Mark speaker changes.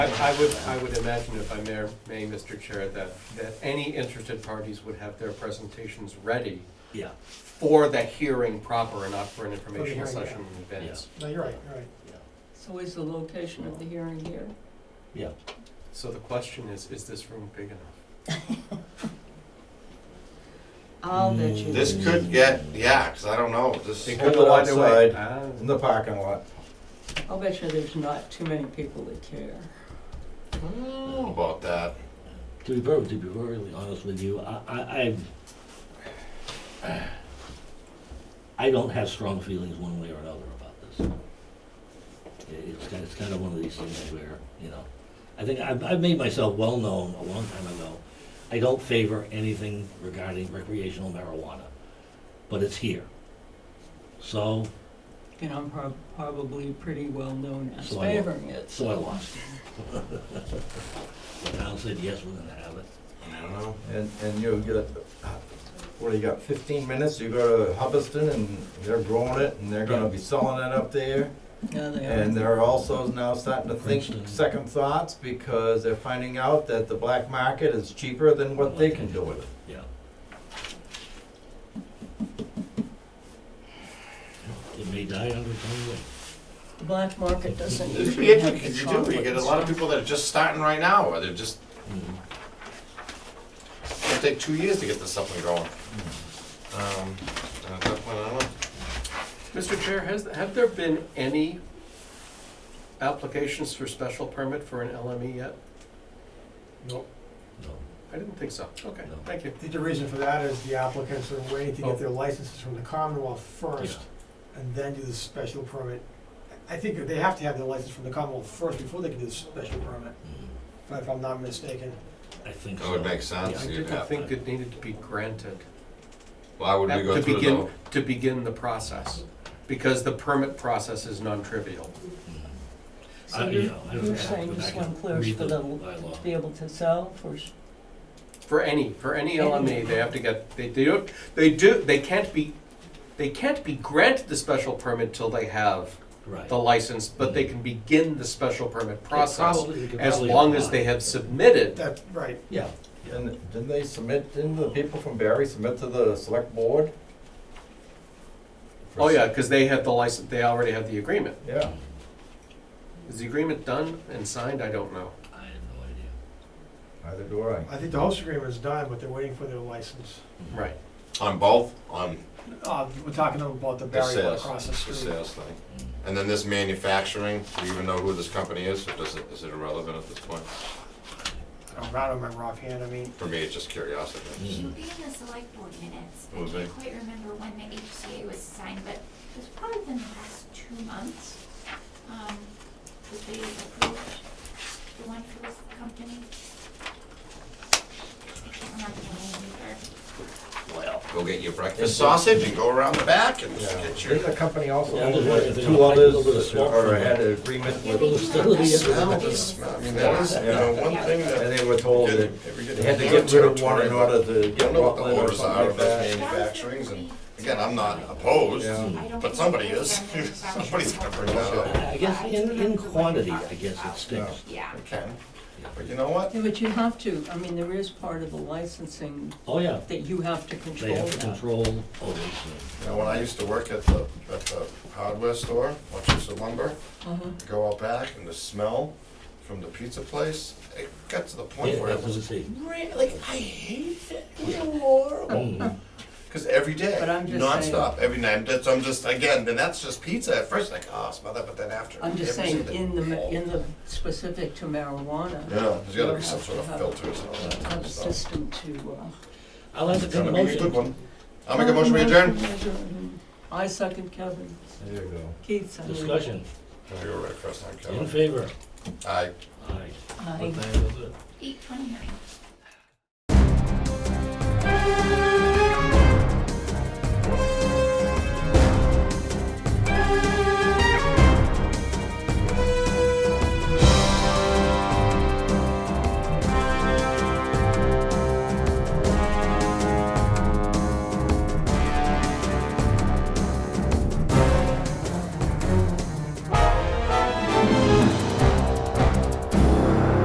Speaker 1: I would, I would imagine if I may, may, Mr. Chair, that, that any interested parties would have their presentations ready
Speaker 2: Yeah,
Speaker 1: for the hearing proper and not for an informational
Speaker 3: hearing,
Speaker 1: session in advance.
Speaker 3: No, you're right, you're right.
Speaker 4: So is the location of the hearing here?
Speaker 2: yeah.
Speaker 1: So the question is, is this room big enough?
Speaker 4: I'll bet
Speaker 2: Mm,
Speaker 4: you.
Speaker 5: This could get, yeah, 'cause I don't know, this,
Speaker 1: It
Speaker 5: yeah,
Speaker 1: could
Speaker 2: Hold it
Speaker 1: go either way.
Speaker 2: outside.
Speaker 1: Ah,
Speaker 2: In the parking lot.
Speaker 4: I'll bet you there's not too many people that care.
Speaker 5: I don't know about that.
Speaker 2: To be perfectly, to be perfectly honest with you, I, I, I've, I don't have strong feelings one way or another about this. It- It's kind, it's kind of one of these things where, you know, I think I've, I've made myself well-known a long time ago. I don't favor anything regarding recreational marijuana, but it's here. So,
Speaker 4: And I'm prob- probably pretty well known as
Speaker 2: So I will.
Speaker 4: favoring it,
Speaker 2: so I
Speaker 4: so.
Speaker 2: lost. The town said, yes, we're gonna have it.
Speaker 5: I don't know.
Speaker 6: And, and you get, what do you got, fifteen minutes, you go to Hubbardston and they're growing it and they're gonna be selling it up there.
Speaker 4: Yeah, they
Speaker 6: And
Speaker 4: are.
Speaker 6: they're also now starting to think
Speaker 2: Princeton.
Speaker 6: second thoughts because they're finding out that the black market is cheaper than what they can do with it.
Speaker 2: Yeah. It may die on its own way.
Speaker 4: The black market doesn't
Speaker 5: It'd
Speaker 4: usually
Speaker 5: be
Speaker 4: have
Speaker 5: interesting,
Speaker 4: these
Speaker 5: 'cause you do, you get a lot of
Speaker 4: conflicts.
Speaker 5: people that are just starting right now, or they're just,
Speaker 2: Mhm.
Speaker 5: it'll take two years to get this something going. Um, and at that point, I don't know.
Speaker 1: Mr. Ah. Chair, has, have there been any applications for special permit for an LME yet?
Speaker 3: Nope.
Speaker 2: No.
Speaker 1: I didn't think so. Okay,
Speaker 2: No.
Speaker 1: thank you.
Speaker 3: I think the reason for that is the applicants are waiting to
Speaker 1: Oh.
Speaker 3: get their licenses from the Commonwealth
Speaker 2: Yeah.
Speaker 3: first, and then do the special permit. I think that they have to have their license from the Commonwealth first before they can do the special permit,
Speaker 2: Mhm.
Speaker 3: if I- if I'm not mistaken.
Speaker 2: I think
Speaker 1: Oh,
Speaker 5: That
Speaker 2: so.
Speaker 5: would make sense.
Speaker 1: I
Speaker 2: Yeah.
Speaker 5: you'd
Speaker 1: didn't
Speaker 5: have
Speaker 1: think
Speaker 2: to-
Speaker 1: it needed to be granted. Uh,
Speaker 5: Why would we go
Speaker 1: to
Speaker 5: through
Speaker 1: begin,
Speaker 5: the,
Speaker 1: to begin the
Speaker 2: Mm-hmm.
Speaker 1: process, because the permit process is non-trivial.
Speaker 4: So
Speaker 2: Mm-hmm. I- you
Speaker 4: you're,
Speaker 2: know, I don't
Speaker 4: you're
Speaker 2: have to go
Speaker 4: saying this
Speaker 2: back
Speaker 4: one
Speaker 2: and
Speaker 4: clears
Speaker 2: read
Speaker 4: for
Speaker 2: the
Speaker 4: them
Speaker 2: bylaw.
Speaker 4: to be able to sell for, s-
Speaker 1: For any, for any LME, they have to get, they do, they do, they can't be, they can't be granted the special permit till they have
Speaker 2: Right.
Speaker 1: the license, but they can begin the special permit
Speaker 2: Yeah,
Speaker 1: process
Speaker 2: probably- you could
Speaker 1: as
Speaker 2: probably
Speaker 1: long as
Speaker 2: apply.
Speaker 1: they have submitted.
Speaker 3: That, right.
Speaker 2: Yeah.
Speaker 6: And didn't they submit, didn't the people from Barry submit to the select board?
Speaker 1: Oh, yeah, because they have the license, they already have the agreement.
Speaker 6: Yeah.
Speaker 1: Is the agreement done and signed? I don't know.
Speaker 2: I had no idea.
Speaker 6: Neither do I.
Speaker 3: I think the host agreement is done, but they're waiting for their license.
Speaker 2: Mm-hmm.
Speaker 1: Right.
Speaker 5: on both, on
Speaker 3: Uh, we're talking about the
Speaker 5: the
Speaker 3: barrier
Speaker 5: sales,
Speaker 3: across the
Speaker 5: the
Speaker 3: street.
Speaker 5: sales thing? And then this manufacturing, do you even know who this company is, or does it, is it irrelevant at this point?
Speaker 3: I don't remember offhand, I mean,
Speaker 5: For me, it's just curiosity.
Speaker 2: Mhm.
Speaker 6: Mm.
Speaker 7: She'll be in the select board minutes. I
Speaker 5: Will be.
Speaker 7: can't quite remember when the HCA was signed, but it was probably within the last two months. Um, that they approved the one for this company. I can't remember the name either.
Speaker 5: Well. Go get your breakfast sausage and go around the back and get your.
Speaker 6: Didn't the company also,
Speaker 2: Yeah,
Speaker 6: own,
Speaker 2: there's
Speaker 6: like,
Speaker 2: anything
Speaker 6: two
Speaker 2: on- like a little bit of
Speaker 6: others,
Speaker 2: smoke
Speaker 6: or
Speaker 2: from
Speaker 6: had
Speaker 2: that.
Speaker 6: an agreement
Speaker 7: Yeah,
Speaker 6: with,
Speaker 7: they do
Speaker 6: and
Speaker 7: have
Speaker 2: still
Speaker 7: that
Speaker 2: the-
Speaker 7: smell.
Speaker 2: the-
Speaker 5: I mean, that is, you know, one thing that.
Speaker 6: they were told that they had to get rid of one in order to
Speaker 5: I don't
Speaker 6: get
Speaker 5: know what the
Speaker 6: Rutland or
Speaker 5: orders
Speaker 6: something
Speaker 5: are
Speaker 6: like
Speaker 5: of this
Speaker 6: that.
Speaker 5: manufacturing, and again, I'm not opposed,
Speaker 6: Yeah.
Speaker 7: I don't
Speaker 5: but somebody
Speaker 7: remember
Speaker 5: is.
Speaker 7: when they signed it.
Speaker 5: Somebody's gonna bring that up.
Speaker 2: Mm-hmm. I I guess in, in quantity, I guess it sticks.
Speaker 7: Yeah.
Speaker 5: Okay, but you know what?
Speaker 4: yeah, but you have to, I mean, there is part of the licensing
Speaker 2: Oh, yeah.
Speaker 4: that you have to
Speaker 2: They
Speaker 4: control
Speaker 2: have to
Speaker 4: that.
Speaker 2: control uh, all these things.
Speaker 5: You know, when I used to work at the, at the hardware store, Wachusett lumber,
Speaker 4: Uh-huh.
Speaker 5: go out back and the smell from the pizza place, it got to the point
Speaker 2: Yeah,
Speaker 5: where
Speaker 2: that's
Speaker 5: it
Speaker 2: what it
Speaker 5: was,
Speaker 2: is.
Speaker 5: re- like, I hate it, it was horrible.
Speaker 2: Mhm.
Speaker 5: Because every day,
Speaker 4: But I'm just
Speaker 5: nonstop, every night. That's I'm just again. Then that's just pizza at first, like oh, smell that, but then after.
Speaker 4: I'm just
Speaker 5: every
Speaker 4: saying,
Speaker 5: single-
Speaker 4: in the, ma- in the specific to marijuana.
Speaker 5: Yeah, there's got to be
Speaker 4: you
Speaker 5: some
Speaker 4: have
Speaker 5: sort
Speaker 4: to
Speaker 5: of
Speaker 4: have
Speaker 5: filters and all that
Speaker 4: a-
Speaker 5: kind
Speaker 4: A
Speaker 5: of stuff.
Speaker 4: system to, uh.
Speaker 2: I'll have to
Speaker 5: It's
Speaker 2: come
Speaker 5: gonna
Speaker 2: to
Speaker 5: be a good
Speaker 2: motion.
Speaker 5: one. I'll make a motion to adjourn.
Speaker 4: I second Kevin,
Speaker 6: There you go.
Speaker 4: Keith seconded.
Speaker 2: Discussion.
Speaker 5: Oh, You're right, first time
Speaker 2: In
Speaker 5: Kevin.
Speaker 2: favor?
Speaker 5: Aye.
Speaker 2: Aye.
Speaker 4: Aye.
Speaker 2: What time is it?
Speaker 7: Eight twenty-nine.